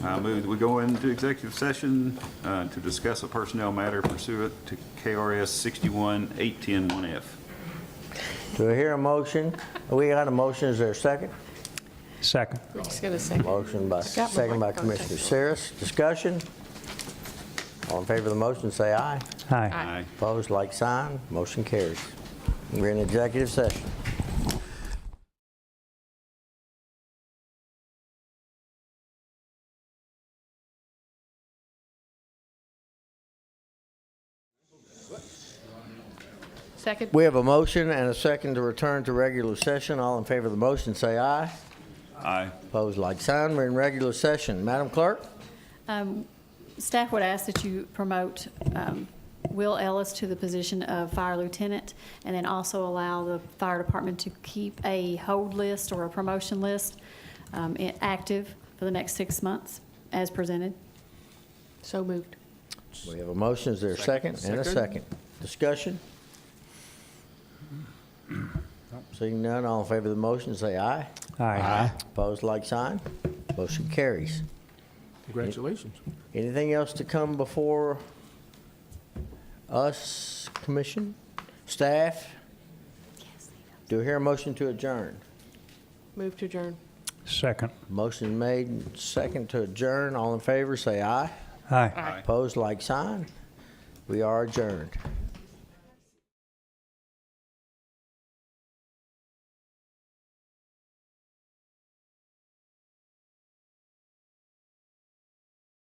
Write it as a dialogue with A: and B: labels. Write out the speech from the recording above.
A: I move that we go into executive session uh, to discuss a personnel matter pursuant to KRS 61 810 1F.
B: Do I hear a motion? We got a motion, is there a second?
C: Second.
D: Just gonna second.
B: Motion by,
D: Got my
B: second by
D: mic.
B: Commissioner
D: Okay.
B: Saris. Discussion? All in favor of the motion, say aye.
C: Aye.
A: Aye.
B: Opposed, like sign. Motion carries. We're in executive session.
D: Second?
B: We have a motion and a second to return to regular session. All in favor of the motion, say aye.
A: Aye.
B: Opposed, like sign. We're in regular session. Madam Clerk?
E: Um, Staff would ask that you promote um, Will Ellis to the position of fire lieutenant, and then also allow the fire department to keep a hold list or a promotion list um, i- active for the next six months, as presented.
D: So moved.
B: We have a motion, is there a second? And a second. Discussion? Seeing none, all in favor of the motion, say aye.
C: Aye.
B: Opposed, like sign. Motion carries.
F: Congratulations.
B: Anything else to come before us, commission, staff? Do we hear a motion to adjourn?
D: Move to adjourn.
C: Second.
B: Motion made, and second to adjourn, all in favor, say aye.
C: Aye.
A: Aye.
B: Opposed, like sign. We are adjourned.